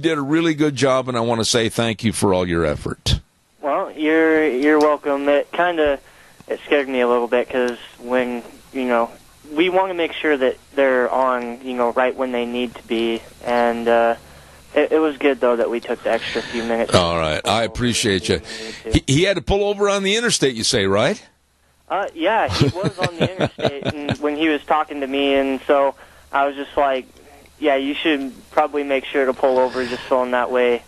did a really good job, and I want to say thank you for all your effort. Well, you're you're welcome. It kind of it scared me a little bit because when you know we want to make sure that they're on you know right when they need to be, and uh, it, it was good though that we took the extra few minutes. All right, I appreciate you. He, he had to pull over on the interstate, you say, right? Uh, yeah, he was on the interstate and when he was talking to me, and so I was just like, yeah, you should probably make sure to pull over just so in that way.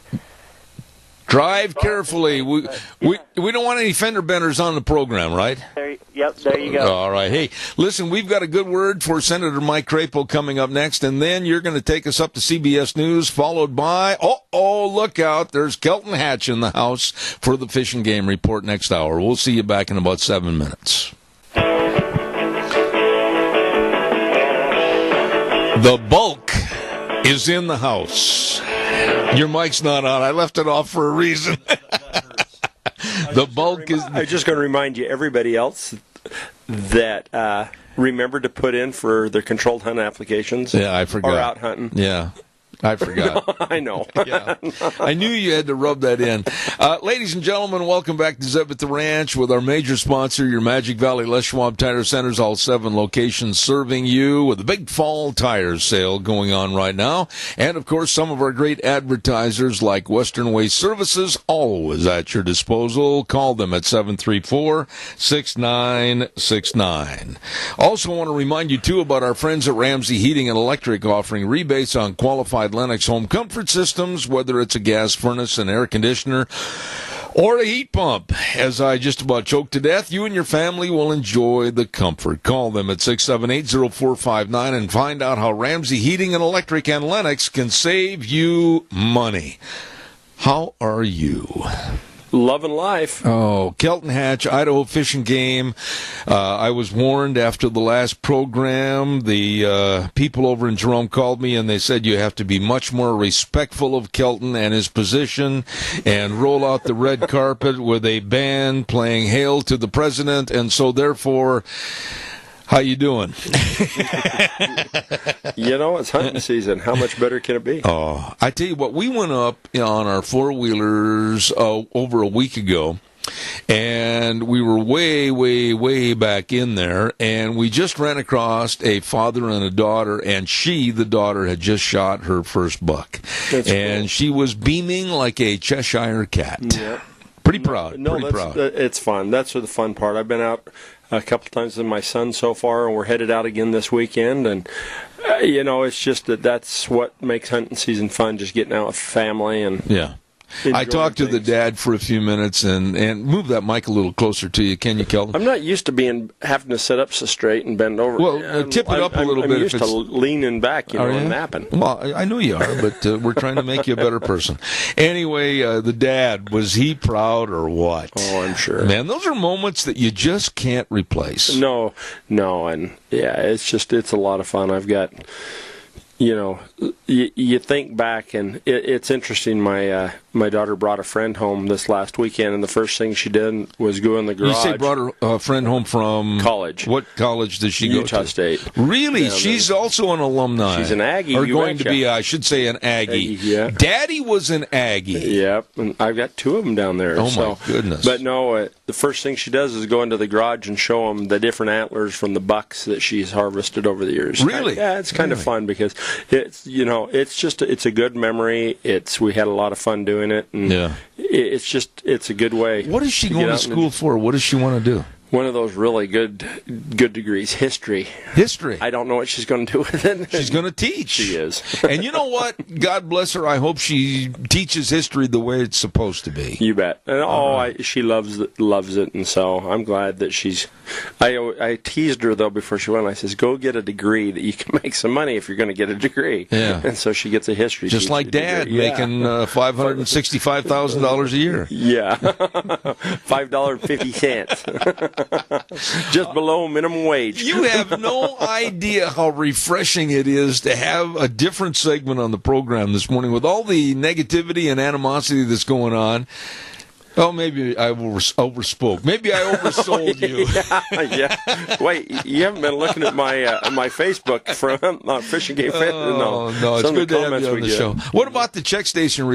Drive carefully. We we we don't want any fender benders on the program, right? There, yep, there you go. All right. Hey, listen, we've got a good word for Senator Mike Crapo coming up next, and then you're going to take us up to CBS News, followed by oh oh look out, there's Kelton Hatch in the house for the Fish and Game Report next hour. We'll see you back in about seven minutes. The bulk is in the house. Your mic's not on. I left it off for a reason. the bulk is. I'm just going to remind you, everybody else, that uh, remember to put in for their controlled hunt applications. Yeah, I forgot. Or out hunting. Yeah. I forgot. I know. yeah. I knew you had to rub that in. Uh, ladies and gentlemen, welcome back to Zeb at the Ranch with our major sponsor, your Magic Valley Les Schwab Tire Centers, all seven locations serving you with a big fall tire sale going on right now. And of course, some of our great advertisers like Western Way Services, always at your disposal. Call them at 734 6969. Also, want to remind you too about our friends at Ramsey Heating and Electric offering rebates on qualified Lennox home comfort systems, whether it's a gas furnace, an air conditioner, or a heat pump. As I just about choked to death, you and your family will enjoy the comfort. Call them at 678-0459 and find out how Ramsey Heating and Electric and Lennox can save you money. How are you? Love and life. Oh, Kelton Hatch, Idaho Fishing Game. Uh, I was warned after the last program. The uh, people over in Jerome called me and they said you have to be much more respectful of Kelton and his position and roll out the red carpet with a band playing Hail to the President. And so, therefore, how you doing? You know, it's hunting season. How much better can it be? Oh, I tell you what, we went up on our four wheelers uh, over a week ago, and we were way, way, way back in there, and we just ran across a father and a daughter, and she, the daughter, had just shot her first buck, That's and cool. she was beaming like a Cheshire cat. Yeah. Pretty proud. No, pretty that's, proud. uh, it's fun. That's the fun part. I've been out a couple times with my son so far, and we're headed out again this weekend. And uh, you know, it's just that that's what makes hunting season fun. Just getting out with family and yeah. I enjoying talked to the things. dad for a few minutes and, and move that mic a little closer to you, can you, Kelton? I'm not used to being having to sit up so straight and bend over. Well, uh, I'm- tip it I'm- up a I'm- little I'm bit if used to it's- leaning back, you know, Are and you? napping. Well, I- I know you are, but uh, we're trying to make you a better person. Anyway, uh, the dad was he proud or what? Oh, I'm sure. Man, those are moments that you just can't replace. No, no, and yeah, it's just it's a lot of fun. I've got, you know, you, you think back, and it, it's interesting. My uh, my daughter brought a friend home this last weekend, and the first thing she did was go in the You garage. say brought her uh, friend home from College. What college did she go Utah to? State. Really, Yeah, she's also an alumni. She's an Aggie, Or you going betcha. to be, I should say, an Aggie. Aggie, yeah. Daddy was an Aggie. Yep, and I've got two of them down there. Oh, my so- goodness. But no, uh, the first thing she does is go into the garage and show them the different antlers from the bucks that she's harvested over the years. Really? yeah, it's kind Really? of fun because it's you know it's just it's a good memory. It's we had a lot of fun doing it, and Yeah. i- it's just it's a good way. What is she get going to out and- school for? What does she want to do? One of those really good good degrees, history. History. I don't know what she's going to do with it. She's going to teach. she is. and you know what? God bless her. I hope she teaches history the way it's supposed to be. You bet. And oh, I, she loves it- loves it, and so I'm glad that she's. I I teased her though before she went. I says, "Go get a degree that you can make some money if you're going to get a degree." Yeah. And so she gets a history. Just teacher like Dad degree. Yeah. making uh, five hundred and sixty-five thousand dollars a year. Yeah, five dollar fifty cents, just below minimum wage. You have no idea how refreshing it is to have a different segment on the program this morning with all the negativity and animosity that's going on. Oh, maybe I overs- overspoke. Maybe I oversold you. yeah. Wait, you haven't been looking at my uh, my Facebook from uh, fishing game. Fan- Oh, no, it's Some of good to have comments you on the we get. show. What about the check station